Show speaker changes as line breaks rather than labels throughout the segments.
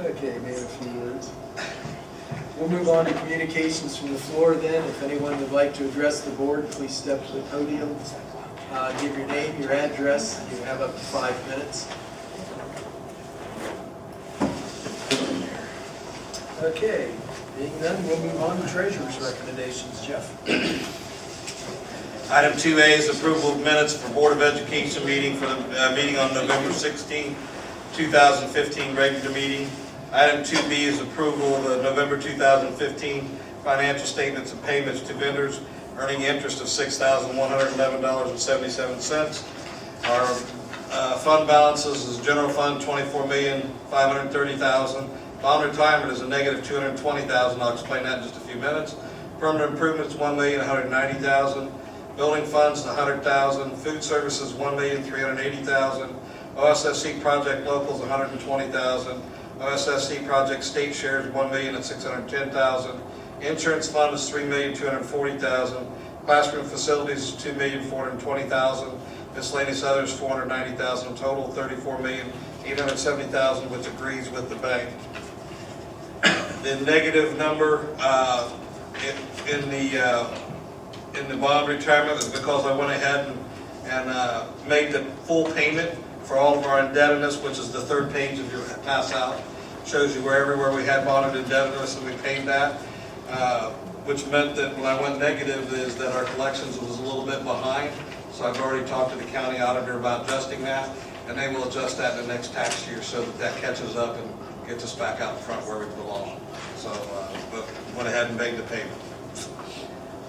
Okay, maybe a few words. We'll move on to communications from the floor then. If anyone would like to address the board, please step to the podium. Uh, Give your name, your address, you have up to five minutes. Okay, being none, we'll move on to treasurer's recommendations. Jeff?
Item 2A is approval of minutes for Board of Education meeting for the, uh, meeting on November 16, 2015, regular meeting. Item 2B is approval of the November 2015 financial statements and payments to vendors earning interest of $6,111.77. Our uh, fund balances is general fund, twenty-four million, five hundred and thirty thousand. Bond retirement is a negative two hundred and twenty thousand, I'll explain that in just a few minutes. Permanent improvements, one million, one hundred and ninety thousand. Building funds, a hundred thousand. Food services, one million, three hundred and eighty thousand. OSSC project locals, a hundred and twenty thousand. OSSC project state shares, one million and six hundred and ten thousand. Insurance fund is three million, two hundred and forty thousand. Classroom facilities is two million, four hundred and twenty thousand. Miscellaneous others, four hundred and ninety thousand, total thirty-four million, eight hundred and seventy thousand, which agrees with the bank. The negative number, uh, in, in the, uh, in the bond retirement was because I went ahead and, and, uh, made the full payment for all of our indebtedness, which is the third page of your pass out. Shows you where everywhere we had bonded indebtedness and we paid that, uh, which meant that when I went negative is that our collections was a little bit behind. So I've already talked to the county auditor about adjusting that, and they will adjust that in the next tax year so that that catches up and gets us back out in front where we belong. So, uh, but went ahead and made the payment.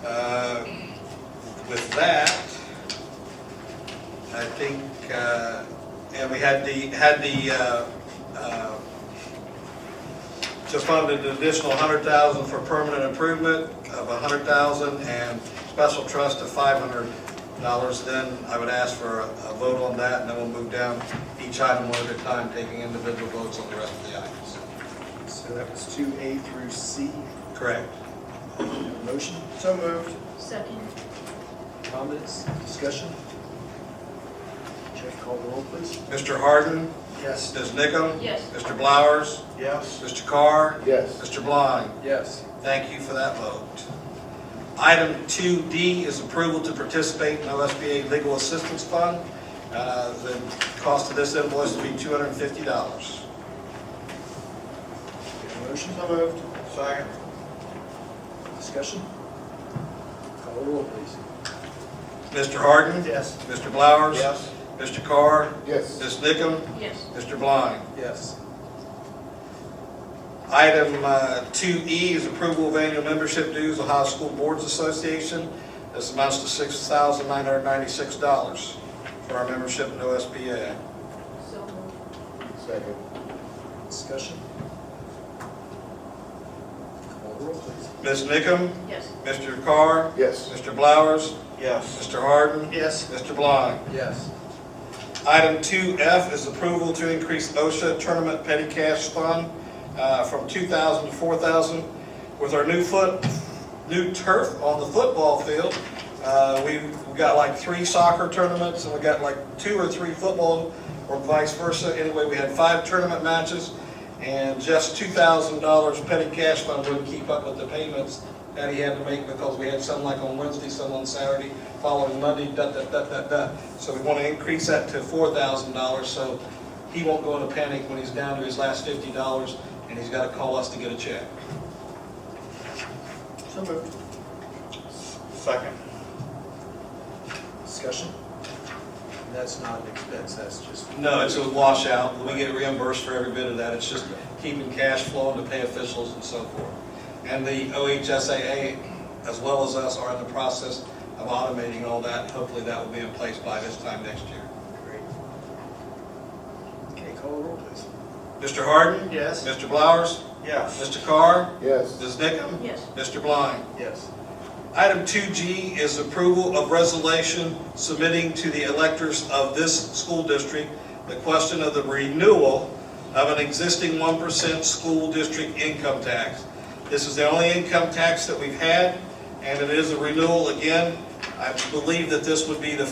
Uh, With that, I think, uh, and we had the, had the, uh, uh, to fund an additional hundred thousand for permanent improvement of a hundred thousand and special trust of five hundred dollars, then I would ask for a a vote on that, and then we'll move down each item one at a time, taking individual votes on the rest of the items.
So that was two A through C.
Correct.
Motion? So moved.
Second,
Comments, discussion? Jeff, call the roll, please.
Mr. Harden?
Yes.
Ms. Nickam?
Yes.
Mr. Blowers?
Yes.
Mr. Carr?
Yes.
Mr. Blind?
Yes.
Thank you for that vote. Item 2D is approval to participate in OSBA Legal Assistance Fund. Uh, The cost of this invoice will be $250.
Motion?
So moved. Second.
Discussion? Call the roll, please.
Mr. Harden?
Yes.
Mr. Blowers?
Yes.
Mr. Carr?
Yes.
Ms. Nickam?
yes,
Mr. Blind?
Yes.
Item uh, 2E is approval of annual membership dues, Ohio School Boards Association. This amounts to $6,996 for our membership in OSBA.
so moved,
Second.
Discussion? Call the roll, please.
Ms. Nickam?
yes,
Mr. Carr?
Yes.
Mr. Blowers,
Yes.
Mr. Harden,
Yes.
Mr. Blind.
Yes.
Item 2F is approval to increase OSHA Tournament Petty Cash Fund uh, from 2,000 to 4,000. With our new foot, new turf on the football field, uh, we've we've got like three soccer tournaments, and we got like two or three football, or vice versa. Anyway, we had five tournament matches, and just $2,000 petty cash fund wouldn't keep up with the payments that he had to make because we had some like on Wednesday, some on Saturday, following Monday, da, da, da, da, da. So we want to increase that to four thousand dollars, so he won't go into panic when he's down to his last fifty dollars, and he's got to call us to get a check.
So moved.
Second.
Discussion? And That's not an expense, that's just.
No, it's a washout, we get reimbursed for every bit of that, it's just keeping cash flowing to pay officials and so forth. And the OHSAA, as well as us, are in the process of automating all that, hopefully that will be in place by this time next year.
Great. Okay, call the roll, please.
Mr. Harden?
Yes.
Mr. Blowers?
Yes.
Mr. Carr?
Yes.
Ms. Nickam?
yes,
Mr. Blind?
Yes.
Item 2G is approval of resolution submitting to the electors of this school district the question of the renewal of an existing 1% school district income tax. This is the only income tax that we've had, and it is a renewal again. I believe that this would be the